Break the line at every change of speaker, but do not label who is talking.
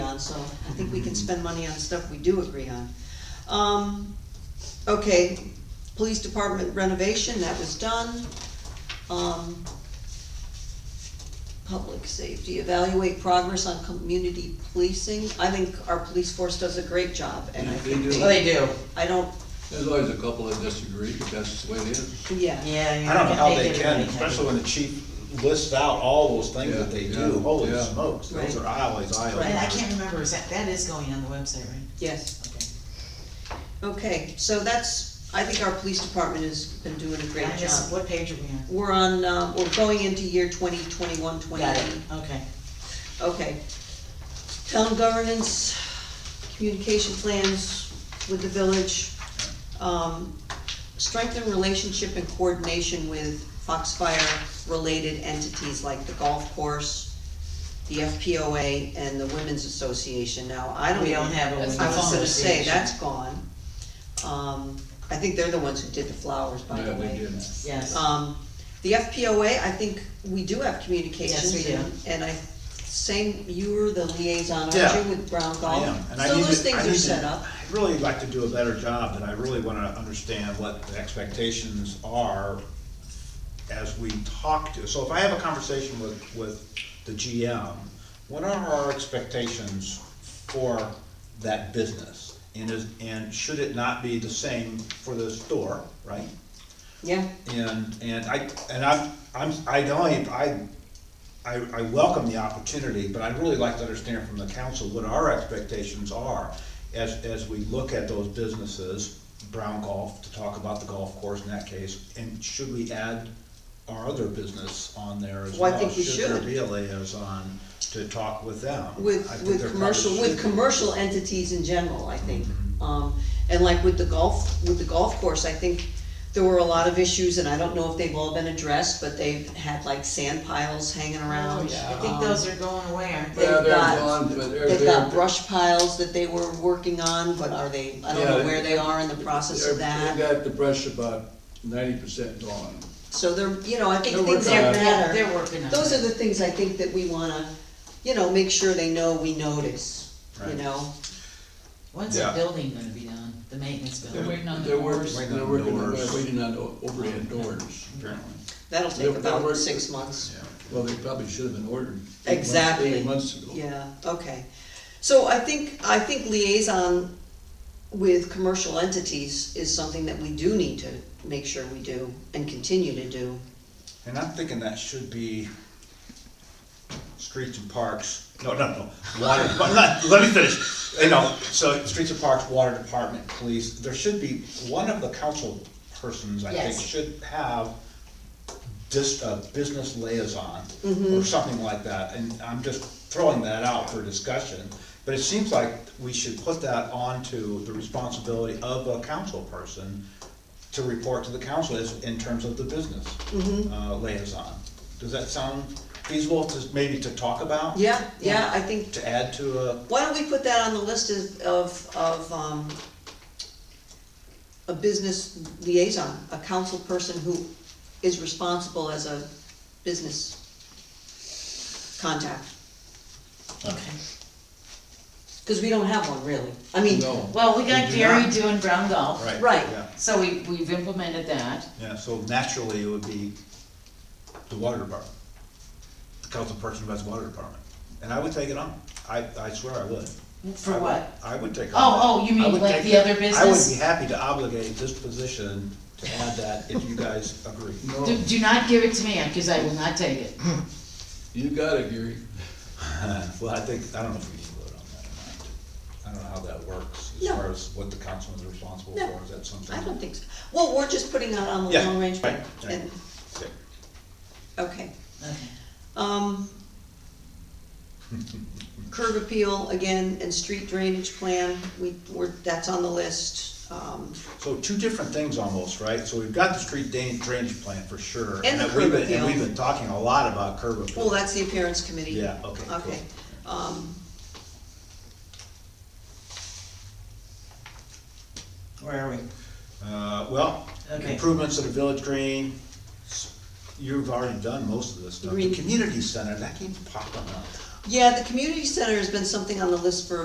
so I think we can spend money on stuff we do agree on. Um, okay, police department renovation, that was done. Um, public safety, evaluate progress on community policing. I think our police force does a great job, and I
They
think
do.
Well,
they,
Oh, they do,
I don't,
There's always a couple that disagree, but that's the way it is.
yeah.
yeah. you
I don't know how they
do
can,
really have-
especially when the chief lists out all those things that they
Yeah, yeah,
do, holy
yeah.
smokes, those
Right.
are aisles,
And I
aisles.
can't remember, is that, that is going on the website, right?
Yes.
Okay.
Okay, so that's, I think our police department has been doing a great
I just-
job.
What page are we on?
We're on, uh, we're going into year 2021, 2022.
Got it, okay.
Okay. Town governance, communication plans with the village, um, strengthen relationship and coordination with Foxfire-related entities like the golf course, the FPOA, and the Women's Association. Now, I don't
We
even
don't have a
I was
women's
gonna say,
association.
that's gone. Um, I think they're the ones who did the flowers, by the
Yeah,
way.
they did.
Yes,
Um, the FPOA, I think we do have communications.
Yes, we do.
and- And I, same, you were the liaison, aren't
Yeah.
you, with Brown
I
Golf?
am, and I
So
need to-
those
I
things
need
are
to-
set up,
I'd really like to do a better job, and I really wanna understand what the expectations are as we talk to, so if I have a conversation with, with the GM, what are our expectations for that business? And is, and should it not be the same for the store, right?
yeah,
And, and I, and I'm, I'm, I don't, I, I, I welcome the opportunity, but I'd really like to understand from the council what our expectations are as, as we look at those businesses, Brown Golf, to talk about the golf course in that case, and should we add our other business on there as well?
Well, I think we
there
should.
be a liaison to talk with them?
with,
I think there
with
probably
commercial,
should
with
be.
commercial entities in general, I think.
Mm-hmm.
Um, and like with the golf, with the golf course, I think there were a lot of issues, and I don't know if they've all been addressed, but they've had like sand piles hanging
Oh,
around.
I think
um,
those are going away, aren't they?
They've
Yeah, they're
got-
gone, but they're,
They've got
they're.
brush piles that they were working on, but are they, I don't
Yeah.
know where they are in the process of
they're-
that.
They got the brush about ninety percent gone.
So they're, you know, I think
They're
things
working
that
on it.
They're,
matter,
they're working on it.
those are the things I think that we wanna, you know, make sure they know we notice, you
Right.
know?
When's the
Yeah.
building gonna be done, the maintenance
They're
building?
waiting on the
they're
doors.
working-
Waiting on
They're working, on-
doors.
they're waiting on o- overhead doors.
Apparently.
That'll take
They're- they're
about
working-
six months.
Yeah.
Well, they probably should have been ordered. eight months-
Exactly.
Eight months ago.
Yeah, okay. So I think, I think liaison with commercial entities is something that we do need to make sure we do and continue to do.
And I'm thinking that should be streets and parks, no, no, no, water, but not, let me finish. You know, so streets and parks, water department, police, there should be, one of the council persons, I think,
Yes.
should have just a business liaison
Mm-hmm.
or something like that, and I'm just throwing that out for discussion. But it seems like we should put that onto the responsibility of a council person to report to the council is in terms of the business
Mm-hmm.
uh, liaison. Does that sound feasible to, maybe to talk about?
Yeah, yeah, I think
To add to a,
Why don't we put that on the list of, of, of, um, a business liaison, a council person who is responsible as a business contact?
Okay.
Cause we don't have one really, I mean,
No,
Well, we got
We do
Gary
not.
doing Brown Golf.
right.
Right.
Yeah,
So we, we've implemented that.
yeah, so naturally it would be the water department. The council person who has the water department. And I would take it on. I, I swear I would. I
For
would-
what?
I would take on.
Oh,
that.
oh, you mean
I would
like
take
the
that.
other
I would
business?
be happy to obligate this position to add that if you guys agree.
Do,
no,
do not give it to me, cause I will not take it.
you got it, Gary.
Well, I think, I don't know if we need to vote on that or not. I don't know how that works as
No.
far as what the council is responsible
No.
for. Is that something?
I don't think so. Well, we're just putting that on the
Yeah,
long range plan,
right, right.
and,
Okay.
okay.
Okay.
Um, curb appeal again, and street drainage plan, we, we're, that's on the list, um.
So two different things almost, right? So we've got the street dan- drainage plan for sure.
And the
that we've
curb
been-
appeal.
And we've been talking a lot about curb appeal.
Well, that's the appearance committee.
Yeah, okay, cool.
Okay. Um,
Where are we?
Uh, well,
Okay.
improvements to the village green, s- you've already done most of this stuff. The
Green.
community center, that keeps popping up.
Yeah, the community center has been something on the list for